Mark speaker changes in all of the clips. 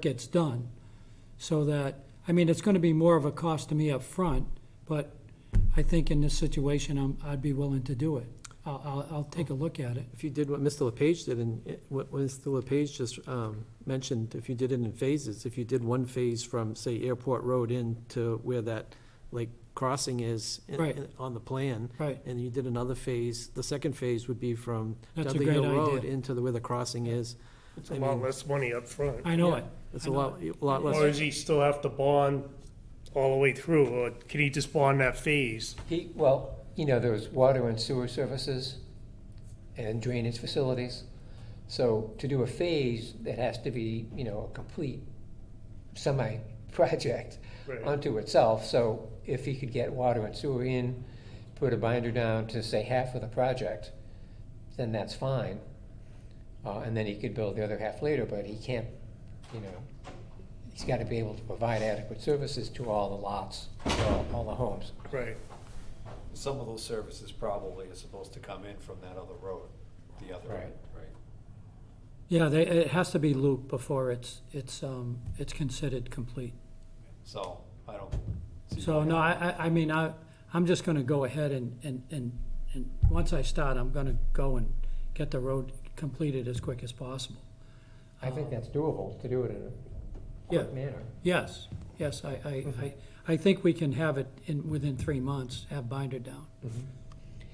Speaker 1: gets done, so that, I mean, it's gonna be more of a cost to me up front, but I think in this situation, I'm, I'd be willing to do it. I'll, I'll, I'll take a look at it.
Speaker 2: If you did what Mr. LePage did, and it- what Mr. LePage just um, mentioned, if you did it in phases, if you did one phase from, say, Airport Road in to where that, like, crossing is in-
Speaker 1: Right.
Speaker 2: in- on the plan,
Speaker 1: Right,
Speaker 2: and you did another phase, the second phase would be from
Speaker 1: that's a
Speaker 2: Dudley
Speaker 1: great
Speaker 2: Hill Road
Speaker 1: idea.
Speaker 2: into the, where the crossing is.
Speaker 3: It's a
Speaker 2: I
Speaker 3: lot
Speaker 2: mean-
Speaker 3: less money up front.
Speaker 1: I know it.
Speaker 2: It's
Speaker 1: I
Speaker 2: a
Speaker 1: know
Speaker 2: lot, a lot
Speaker 3: Or
Speaker 2: less.
Speaker 3: does he still have to bond all the way through, or can he just bond that phase?
Speaker 4: He, well, you know, there was water and sewer services and drainage facilities. So to do a phase, that has to be, you know, a complete semi-project
Speaker 3: Right.
Speaker 4: unto itself. So if he could get water and sewer in, put a binder down to say half of the project, then that's fine. Uh, and then he could build the other half later, but he can't, you know, he's gotta be able to provide adequate services to all the lots, all, all the homes.
Speaker 3: Right,
Speaker 5: Some of those services probably are supposed to come in from that other road, the other
Speaker 4: Right.
Speaker 5: end, right?
Speaker 1: Yeah, they, it has to be looped before it's, it's, um, it's considered complete.
Speaker 5: So, I don't. see
Speaker 1: So,
Speaker 5: why-
Speaker 1: no, I, I, I mean, I, I'm just gonna go ahead and, and, and, and once I start, I'm gonna go and get the road completed as quick as possible.
Speaker 4: I think that's doable, to do it in a quick
Speaker 1: Oh. Yeah.
Speaker 4: manner.
Speaker 1: Yes, yes, I, I, I, I think we can have it in, within three months, have binder down.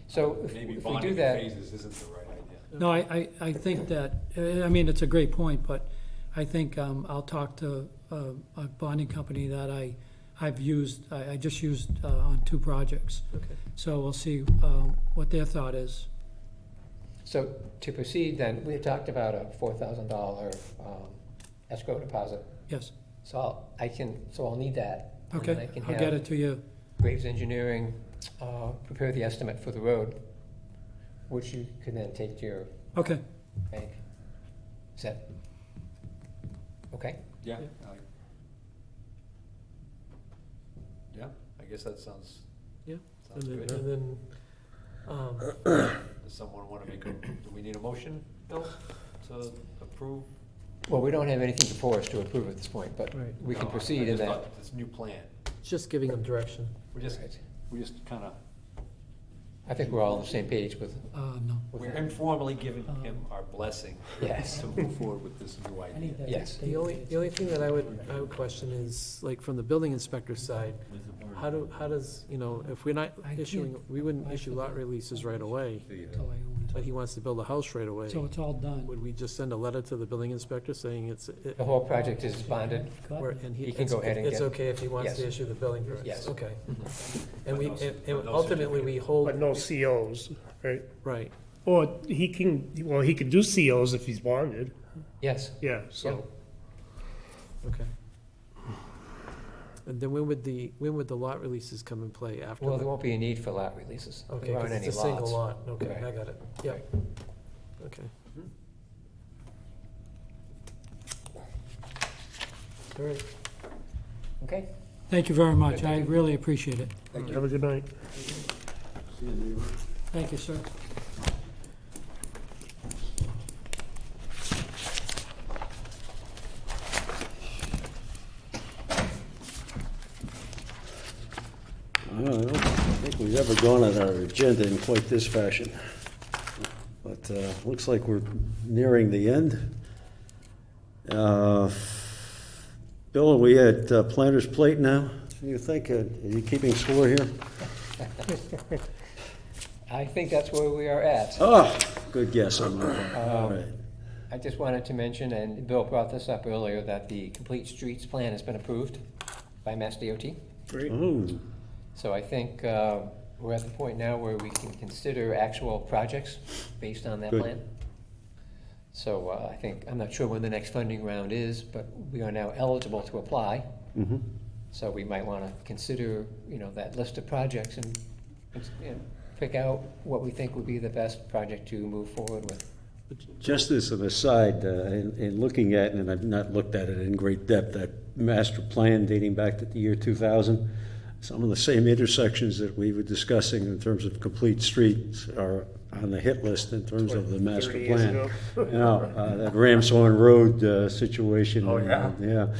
Speaker 4: So if
Speaker 5: Maybe
Speaker 4: if we
Speaker 5: bonding
Speaker 4: do
Speaker 5: in
Speaker 4: that,
Speaker 5: phases isn't the right idea.
Speaker 1: No, I, I, I think that, eh, I mean, it's a great point, but I think, um, I'll talk to, uh, a bonding company that I, I've used, I, I just used, uh, on two projects.
Speaker 2: Okay.
Speaker 1: So we'll see, um, what their thought is.
Speaker 4: so to proceed then, we had talked about a four thousand dollar um, escrow deposit.
Speaker 1: Yes,
Speaker 4: So I'll, I can, so I'll need that. and then
Speaker 1: okay,
Speaker 4: I can
Speaker 1: I'll get
Speaker 4: have
Speaker 1: it to you.
Speaker 4: Graves Engineering uh, prepare the estimate for the road, which you can then take to your
Speaker 1: Okay,
Speaker 4: bank. Is that? Okay,
Speaker 5: Yeah. I- Yeah, I guess that sounds.
Speaker 2: Yeah. And
Speaker 5: Sounds
Speaker 2: then,
Speaker 5: good.
Speaker 2: and then, um,
Speaker 5: Does someone wanna make a, do we need a motion, Bill, to approve?
Speaker 4: well, we don't have anything before us to approve at this point, but
Speaker 2: Right.
Speaker 4: we can
Speaker 5: No, I- I
Speaker 4: proceed in
Speaker 5: just
Speaker 4: that.
Speaker 5: thought This new plan,
Speaker 2: just giving them direction.
Speaker 5: we just,
Speaker 4: Right.
Speaker 5: we just kinda,
Speaker 4: I think we're all on the same page with,
Speaker 1: uh, no.
Speaker 4: with
Speaker 5: we're
Speaker 4: that.
Speaker 5: informally giving him our blessing
Speaker 4: Yes.
Speaker 5: to move forward with this new idea.
Speaker 4: Yes.
Speaker 2: The only, the only thing that I would, I would question is, like, from the building inspector's side, how do, how does, you know, if we're not
Speaker 1: I can't
Speaker 2: issuing, we wouldn't
Speaker 1: apply
Speaker 2: issue
Speaker 1: for
Speaker 2: lot
Speaker 1: the-
Speaker 2: releases right away,
Speaker 1: Till I own
Speaker 2: but he wants to build a house right
Speaker 1: it.
Speaker 2: away.
Speaker 1: So it's all done.
Speaker 2: Would we just send a letter to the building inspector saying it's, it-
Speaker 4: The whole project is bonded.
Speaker 2: we're- and he,
Speaker 4: He can
Speaker 2: it's
Speaker 4: go ahead and
Speaker 2: it's
Speaker 4: get-
Speaker 2: okay if he wants to
Speaker 4: Yes.
Speaker 2: issue the building permits?
Speaker 4: Yes. Mm-hmm.
Speaker 2: Okay. And we,
Speaker 5: But no-
Speaker 2: and
Speaker 5: but
Speaker 2: and
Speaker 5: no
Speaker 2: ultimately, we hold,
Speaker 3: but no COs, right?
Speaker 2: right,
Speaker 3: Or he can, well, he can do COs if he's bonded,
Speaker 4: Yes,
Speaker 3: yeah, so.
Speaker 2: okay. And then when would the, when would the lot releases come in play after?
Speaker 4: well,
Speaker 2: the-
Speaker 4: there won't be a need for lot releases. There
Speaker 2: Okay, 'cause
Speaker 4: aren't any
Speaker 2: it's a single
Speaker 4: lots.
Speaker 2: lot, okay,
Speaker 4: Right.
Speaker 2: I got it, yeah, okay. All right.
Speaker 4: Okay,
Speaker 1: Thank you very much, I really appreciate it.
Speaker 3: Have a good night.
Speaker 1: Thank you, sir.
Speaker 6: I don't think we've ever gone at our agenda in quite this fashion. But uh, looks like we're nearing the end. Uh, Bill, are we at uh, Planter's Plate now? You think, uh, are you keeping score here?
Speaker 4: I think that's where we are at.
Speaker 6: Oh, good guess on that one. All right.
Speaker 4: I just wanted to mention, and Bill brought this up earlier, that the Complete Streets Plan has been approved by Mass DOT.
Speaker 6: Oh,
Speaker 4: So I think uh, we're at the point now where we can consider actual projects based on that
Speaker 6: Good.
Speaker 4: plan. So uh, I think, I'm not sure when the next funding round is, but we are now eligible to apply.
Speaker 6: mhm.
Speaker 4: So we might want to consider, you know, that list of projects and, and pick out what we think would be the best project to move forward with.
Speaker 6: Just as an aside, uh, in in looking at, and I've not looked at it in great depth, that master plan dating back to the year 2000, Some of the same intersections that we were discussing in terms of complete streets are on the hit list in terms of the master
Speaker 3: 30 years
Speaker 6: plan.
Speaker 3: ago.
Speaker 6: You know, uh, that Ramshorn Road uh, situation.
Speaker 3: Oh, yeah.
Speaker 6: Yeah.